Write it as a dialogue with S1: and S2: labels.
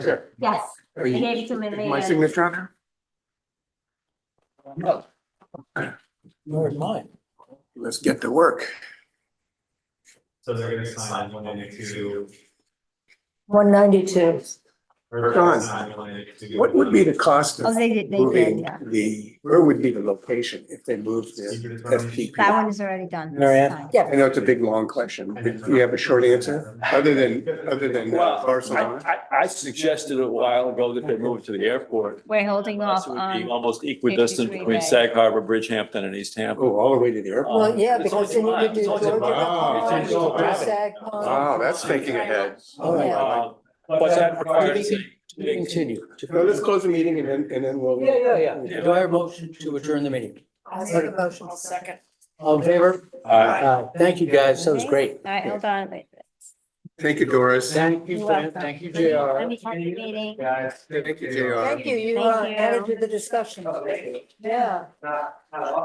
S1: Sure.
S2: Yes,
S1: Are
S2: I
S1: you-
S2: gave it to him in
S1: is My
S2: the,
S1: signature on there?
S3: Nor mine.
S1: Let's get to work.
S4: So they're gonna sign one ninety-two.
S5: One ninety-two.
S1: John, What would be the cost
S2: oh,
S1: of
S2: they did, they did,
S1: moving
S2: yeah.
S1: the, where would be the location if they moved the
S4: the?
S2: That
S1: SPP?
S2: one is already done.
S3: Mary Ann?
S2: Signed.
S5: Yeah.
S1: I know it's a big, long question. Do you have a short answer? Other than, other than uh,
S6: Well,
S1: Barcelona?
S6: I, I, I suggested a while ago that they move to the airport.
S2: We're holding off
S6: It would be
S2: on,
S6: almost equidistant
S2: 53
S6: between
S2: Bay.
S6: Sag Harbor, Bridgehampton and East Hampton.
S1: Oh, all the way to the airport?
S5: Well,
S6: Um,
S5: yeah,
S6: it's
S5: because then
S6: only
S5: you
S6: mine.
S5: could do
S6: It's only
S5: Georgia
S6: mine.
S5: Pond,
S1: It's
S5: you
S1: only
S5: could do
S1: mine.
S5: Sag
S1: Wow,
S5: Pond.
S1: that's thinking ahead.
S3: All right.
S6: Uh, But that requires.
S3: We Continue.
S1: So let's close the meeting and then, and then we'll.
S3: Yeah, yeah, yeah. Do I have a motion to adjourn the meeting?
S5: I made a motion. Second.
S3: All in favor?
S6: Uh,
S3: Aye. Thank you, guys. That was great.
S2: all right, hold on. wait.
S1: Thank you, Doris.
S3: Thank
S2: You're
S3: you,
S2: welcome.
S3: Fran. Thank you,
S2: Let
S3: JR.
S2: me have the meeting.
S1: Thank you, JR.
S5: Thank you, you
S2: Thank
S5: uh,
S2: you.
S5: added to the discussion. Yeah.